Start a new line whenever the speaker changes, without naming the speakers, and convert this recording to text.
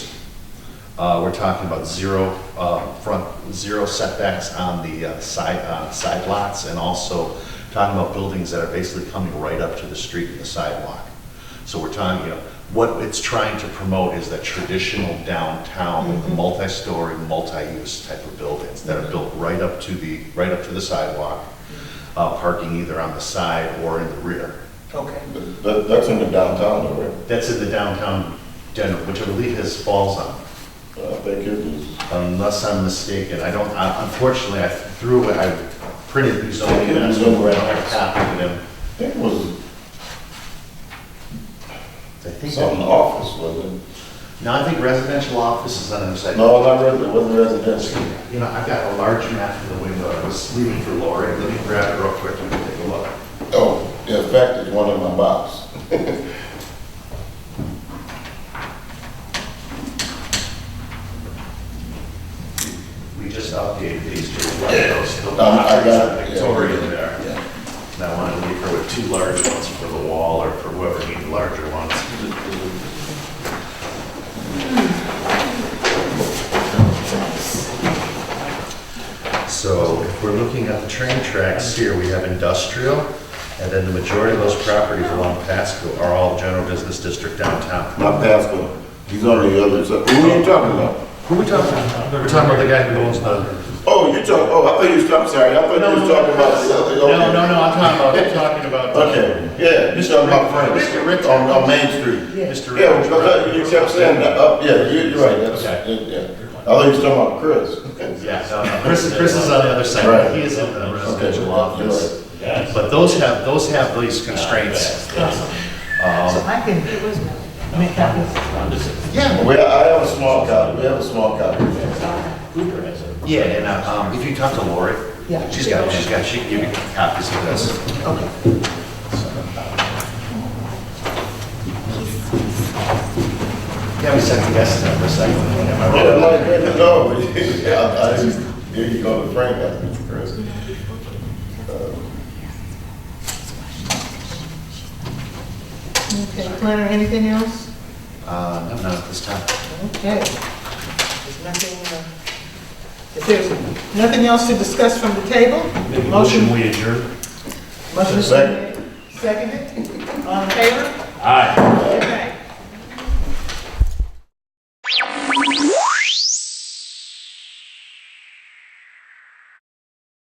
Uh, We're talking about zero uh, front, zero setbacks on the uh, side, uh, side lots, and also talking about buildings that are basically coming right up to the street and the sidewalk. So we're talking, you know, what it's trying to promote is that traditional downtown, with the multi-story, multi-use type of buildings that are built right up to the, right up to the sidewalk, uh, parking either on the side or in the rear.
Okay.
Um,
That, that's in the downtown, though, right?
That's in the downtown Denver, which I believe has falls on,
Uh, I think it is.
unless I'm mistaken. I don't, I- unfortunately, I threw away, I printed these only, and I don't have a copy of them.
I think it was
I think,
something
that-
office, wasn't
no, I think residential office is on the other
it?
side.
No, not resi, it wasn't residential.
You know, I've got a large map in the window. I was leaving for Lori. Let me grab it real quick and take a look.
Oh, in fact, it's one in my box.
We just updated these to reflect those. The
Um, I
lotteries
got
in
it.
Victoria there.
Yeah.
And I wanted to leave her with two large ones for the wall or for whoever needed larger ones. So if we're looking at the train tracks here, we have industrial, and then the majority of those properties along Pasco are all general business district downtown.
Not Pasco. He's on the other side. Who are you talking about?
Who are we talking about? We're talking about the guy who owns the
Oh, you talk, oh, I thought you was talking, sorry, I thought you was talking about the other.
No, no, no, I'm talking about, I'm talking about.
Okay, yeah, you talking about Frank.
Mr. Rick-
On, on Main Street.
Mr.
Yeah, but that- you kept saying that, up, yeah, you- you're right, that's,
Okay.
yeah. I thought you was talking about Chris.
Yeah, no, no, Chris, Chris is on the other side,
Right.
he is in the residential
Okay,
office. But those have, those have these constraints.
So I can make copies.
Yeah.
We, I have a small copy, we have a small copy.
Yeah, and, uh, um, if you talk to Lori,
Yeah.
she's got, she's got, she can give you copies of this.
Okay.
Yeah, we second guessed that for a second, am I
Yeah,
wrong?
like, man, no, yeah, I, I just, here you go, to Frank, I think, Chris.
Okay, planner, anything else?
Uh, no, not at this time.
Okay. There's nothing, uh, if there's nothing else to discuss from the table? Motion.
we adjourn.
Motion is
Second.
seconded. All in favor?
Aye.
Everybody